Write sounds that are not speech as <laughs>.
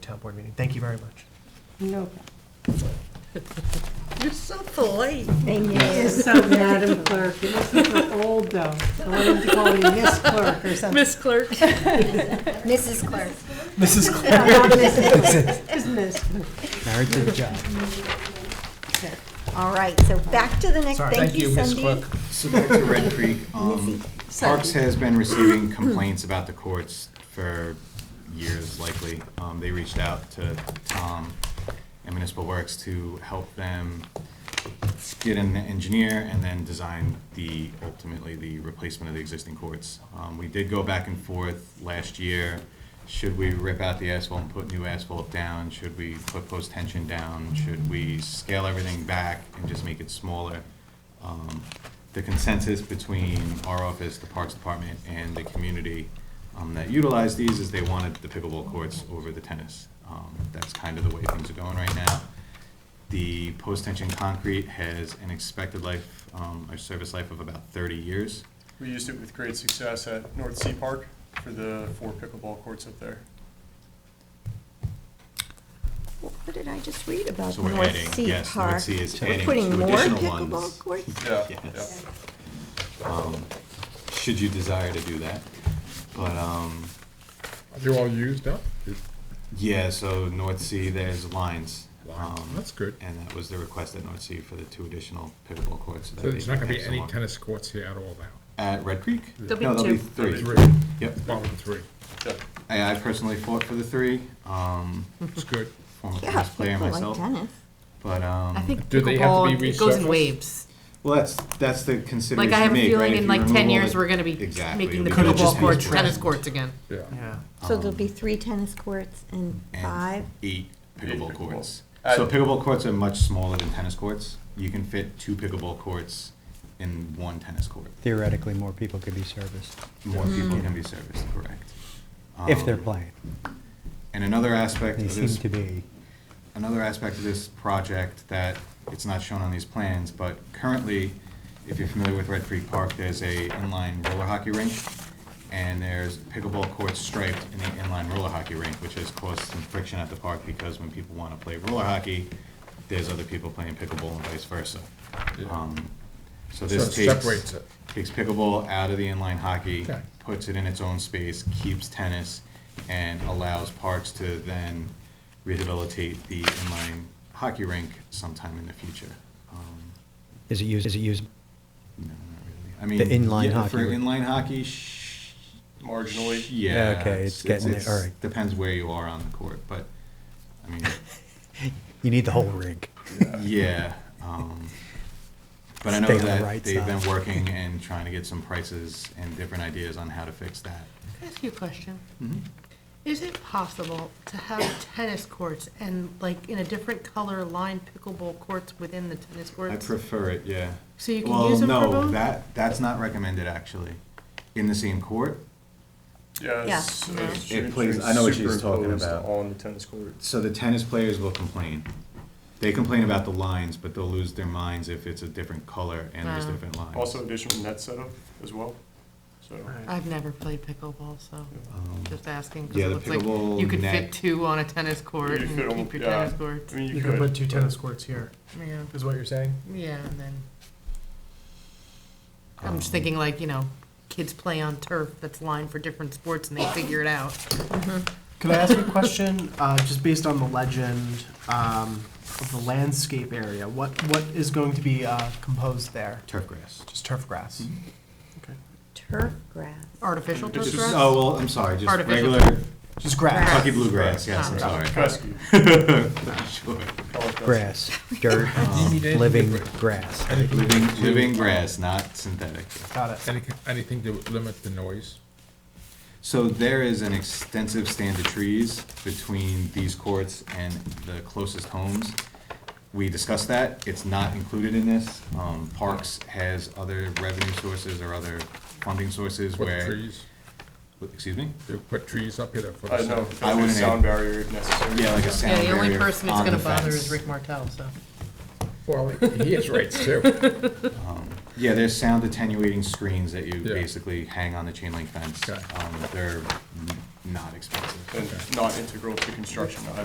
board meeting. Thank you very much. No. You're so polite. Thank you. It's so, Madam Clerk, it wasn't for old, though. I wanted to call you Miss Clerk or something. Miss <laughs> Clerk. Mrs. Clerk. <laughs> Mrs. Claire. It's Miss. Very good job. All right, so back to the next, Sorry. thank you, Miss Cindy. So back to Red Creek, um, Parks has been receiving complaints about the courts for years likely. Um, They reached out to Tom and Municipal Works to help them get an engineer and then design the, ultimately, the replacement of the existing courts. Um, We did go back and forth last year. Should we rip out the asphalt and put new asphalt down? Should we put post-tension down? Should we scale everything back and just make it smaller? Um, The consensus between our office, the Parks Department, and the community um, that utilize these is they wanted the pickleball courts over the tennis. Um, That's kind of the way things are going right now. The post-tension concrete has an expected life, um, or service life of about thirty years. We used it with great success at North Sea Park for the four pickleball courts up there. What did I just read about So we're adding- North Sea yes, North Park? Sea is We're adding Putting two more additional pickleball ones. courts? Yeah, yeah. Yes. Um, Should you desire to do that, but, um, They're all used up? yeah, so North Sea, there's lines. Lines. um, That's good. And that was the request at North Sea for the two additional pickleball courts. so that So they there's not can gonna be have any someone- tennis courts here at all now? At Red Creek? There'll be No, there'll be two. three. Three, Yep, bottom three, yeah. I I personally fought for the three, um, it's good. former Yeah, tennis player people like myself, tennis. but, um. I think Do they have to pickleball, be it goes in resurfaced? waves. Well, that's, that's the consideration Like, I have a you make, feeling right? in If you like ten remove all years, the- we're gonna be Exactly, making we the could have pickleball just courts, used one. tennis courts again. Yeah. Yeah. So there'll be three tennis courts and Um, And five, Eight pickleball pickleball. courts. Uh, So pickleball courts are much smaller than tennis courts. You can fit two pickleball courts in one tennis court. theoretically, more people could be serviced, More people can be serviced, correct. if they're Um, playing. And another aspect They of seem this to be. another aspect of this project that it's not shown on these plans, but currently, if you're familiar with Red Creek Park, there's a inline roller hockey rink, and there's pickleball courts striped in the inline roller hockey rink, which has caused some friction at the park, because when people wanna play roller hockey, there's other people playing pickleball and vice versa. Um, So So this it takes, separates it. takes pickleball out of the inline hockey, Okay. puts it in its own space, keeps tennis, and allows parks to then rehabilitate the inline hockey rink sometime in the future. Um, Is it used, is it used, <laughs> no, not really. I The mean, inline yeah, hockey For rink. inline hockey, sh- Marginally. yeah. Okay, it's getting there, all right. Depends where you are on the court, but, I mean, you need the whole rig. yeah. um, But I know Stay on the that right they've been side. <laughs> working and trying to get some prices and different ideas on how to fix that. Can I ask you a question? Mm-hmm. Is it possible to have tennis courts and like in a different color line pickleball courts within the tennis I courts? prefer it, yeah. So you can use them for Well, no, both? that, that's not recommended, actually. In the same court, Yeah. it's, Yeah. uh, It shooting plays- things I know what she's talking superimposed about. On the tennis court. so the tennis players will complain. They complain about the lines, but they'll lose their minds if it's a different color and there's Wow. different lines. Also additional net setup as well, so. I've never played pickleball, so Um, just asking, Yeah, because it the looks like pickleball you could net. fit two on a tennis You court could and fit keep almo- your yeah, tennis courts. I mean, You can put two but- tennis courts here, Yeah, is what you're saying? yeah, and then, I'm Um, just thinking like, you know, kids play on turf that's lined for different sports and they figure it out. Could I ask a question, uh, just based on the legend, um, of the landscape area? What, what is going to be, uh, composed there? Turf grass. Just turf grass? Okay. turf grass. Artificial turf It's just- grass? Oh, well, I'm sorry, just Artificial. regular Just grass? Kentucky bluegrass, yes, I'm Ah. sorry. Fescue. <laughs> Sure. Call it fescue. Grass, dirt, living grass. Living, living grass, not synthetic. Got it. Anything, anything to limit the noise? So there is an extensive stand of trees between these courts and the closest homes. We discussed that, it's not included in this. Um, Parks has other revenue sources or other funding sources Put where. trees, Excuse me? they put trees up here for I the know, sound. I wouldn't sound barrier if necessary. Yeah, like a Yeah, sound the only barrier person it's on gonna the bother fence. is Rick Martel, so. Well, he has rights <laughs> too. Yeah, there's sound attenuating screens that you Yeah. basically hang on the chain link fence. Okay. Um, they're n- not expensive. And not integral to construction